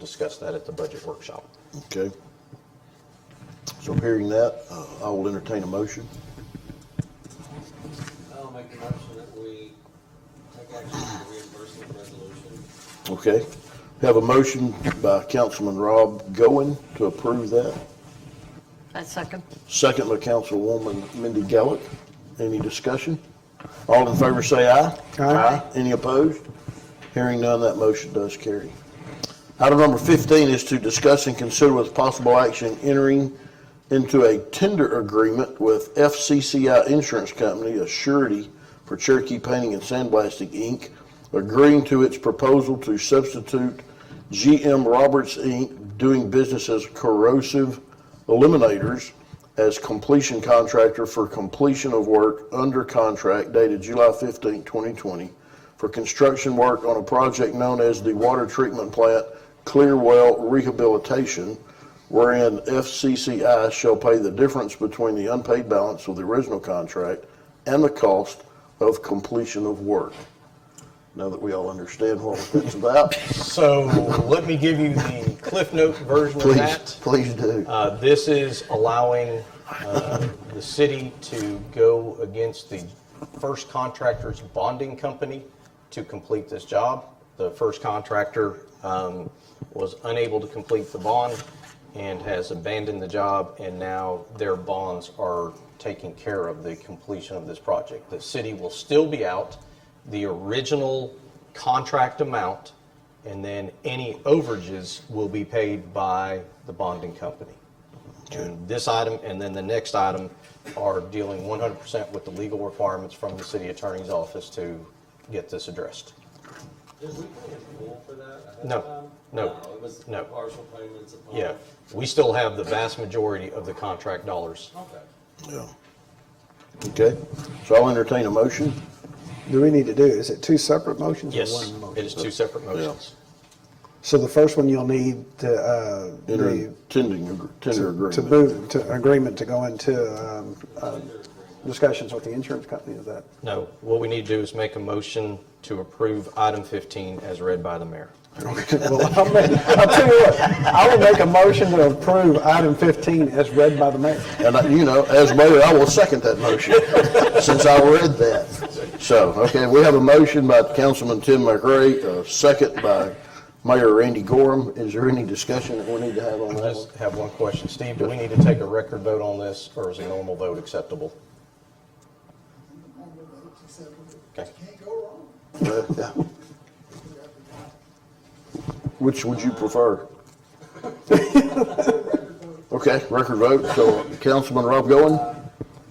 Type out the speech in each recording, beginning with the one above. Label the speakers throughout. Speaker 1: discuss that at the budget workshop.
Speaker 2: Okay. So hearing that, uh, I will entertain a motion.
Speaker 3: I'll make a motion Oh, that we take action on the reimbursement resolution.
Speaker 2: Okay. Have a motion by Councilman Rob Goen to approve that.
Speaker 4: I second.
Speaker 2: Second by Councilwoman Mindy Gallick. Any discussion? All in favor say aye. Aye. Any opposed? Hearing none, that motion does carry. Item number 15 is to discuss and consider with possible action entering into a tender agreement with FCCI Insurance Company, a surety for Cherokee Painting and Sandblasting, Inc., agreeing to its proposal to substitute GM Roberts, Inc., doing business as Corrosive Eliminators, as completion contractor for completion of work under contract dated July 15, 2020, for construction work on a project known as the Water Treatment Plant Clearwell Rehabilitation, wherein FCCI shall pay the difference between the unpaid balance of the original contract and the cost of completion of work. Now that we all understand what that's about,
Speaker 1: So let me give you the Cliff Note version of
Speaker 2: please,
Speaker 1: that.
Speaker 2: please do.
Speaker 1: Uh, This is allowing uh, the city to go against the first contractor's bonding company to complete this job. The first contractor um, was unable to complete the bond and has abandoned the job, and now their bonds are taking care of the completion of this project. The city will still be out the original contract amount, and then any overages will be paid by the bonding company. And this item, and then the next item are dealing 100% with the legal requirements from the city attorney's office to get this addressed.
Speaker 3: Did we pay in full for that? ahead of
Speaker 1: No,
Speaker 3: time?
Speaker 1: no,
Speaker 3: It was
Speaker 1: no.
Speaker 3: partial payments upon.
Speaker 1: Yeah, we still have the vast majority of the contract dollars.
Speaker 3: Okay.
Speaker 2: Yeah. Okay, so I'll entertain a motion.
Speaker 5: Do we need to do, is it two separate motions or
Speaker 1: Yes,
Speaker 5: one
Speaker 1: it
Speaker 5: motion?
Speaker 1: is two separate motions.
Speaker 5: So the first one you'll need to, uh,
Speaker 2: Enter
Speaker 5: the-
Speaker 2: tending, ag- tender agreement.
Speaker 5: to move, to agreement to go into um, uh, discussions with the insurance company, is that?
Speaker 1: No, what we need to do is make a motion to approve item 15 as read by the mayor.
Speaker 5: Well, I'll make- I'll tell you what, I will make a motion to approve item 15 as read by the mayor.
Speaker 2: And, I- you know, as mayor, I will second that motion, since I read that. So, okay, we have a motion by Councilman Tim McRae, a second by Mayor Randy Gorham. Is there any discussion that we need to have on
Speaker 1: I
Speaker 2: that one?
Speaker 1: just have one question. Steve, do we need to take a record vote on this, or is a normal vote acceptable? Okay.
Speaker 2: Uh, yeah. Which would you prefer? Okay, record vote, so Councilman Rob Goen,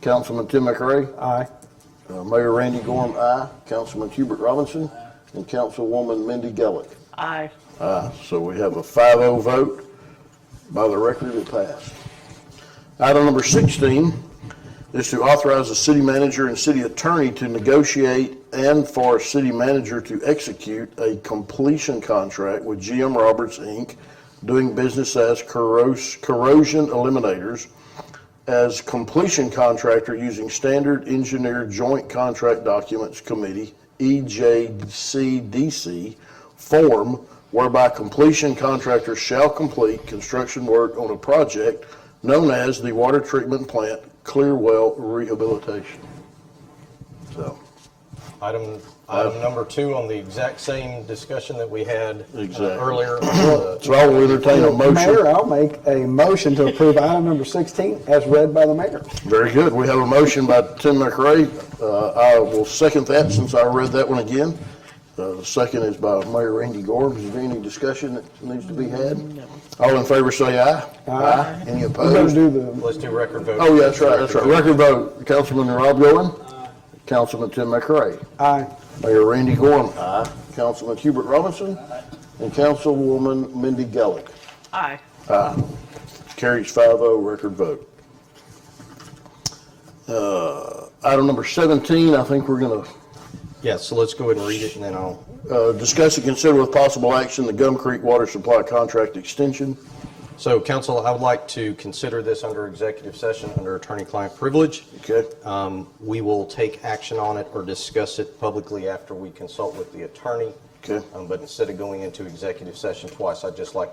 Speaker 2: Councilman Tim McRae,
Speaker 5: Aye.
Speaker 2: uh, Mayor Randy Gorham, aye, Councilman Hubert Robinson, and Councilwoman Mindy Gallick.
Speaker 4: Aye.
Speaker 2: Aye, Ah, so we have a 5-0 vote. By the record, it passed. Item number 16 is to authorize the city manager and city attorney to negotiate and for city manager to execute a completion contract with GM Roberts, Inc., doing business as Corros- Corrosion Eliminators, as completion contractor using Standard Engineer Joint Contract Documents Committee, E EJCDC, form whereby completion contractor shall complete construction work on a project known as the Water Treatment Plant Clearwell Rehabilitation. So,
Speaker 1: Item, item number two on the exact same discussion that we had uh,
Speaker 2: Exactly.
Speaker 1: earlier. Uh, on the-
Speaker 2: so I will entertain a
Speaker 5: Mayor,
Speaker 2: motion.
Speaker 5: I'll make a motion to approve item number 16 as read by the mayor.
Speaker 2: Very good. We have a motion by Tim McRae. Uh, I will second that since I read that one again. Uh, The second is by Mayor Randy Gorb. Is there any discussion that needs to be had? All in favor, say aye. Aye. Any
Speaker 5: We're going to
Speaker 2: opposed?
Speaker 5: do the,
Speaker 1: Let's do record vote.
Speaker 2: Oh, yeah, that's right, that's right. Record vote, Councilman Rob Goen, Councilman Tim McRae,
Speaker 5: aye.
Speaker 2: Mayor Randy Gorm, aye, Councilman Hubert Robinson, and Councilwoman Mindy Gallick.
Speaker 4: Aye.
Speaker 2: Carries 5-0 record vote. Uh, Item number 17, I think we're going to
Speaker 1: Yeah, so let's go ahead and read it and then I'll,
Speaker 2: uh, discuss and consider with possible action the Gum Creek Water Supply Contract Extension.
Speaker 1: so council, I would like to consider this under executive session, under attorney-client privilege.
Speaker 2: Okay?
Speaker 1: Um, We will take action on it or discuss it publicly after we consult with the attorney.
Speaker 2: Okay.
Speaker 1: Um, But instead of going into executive session twice, I'd just like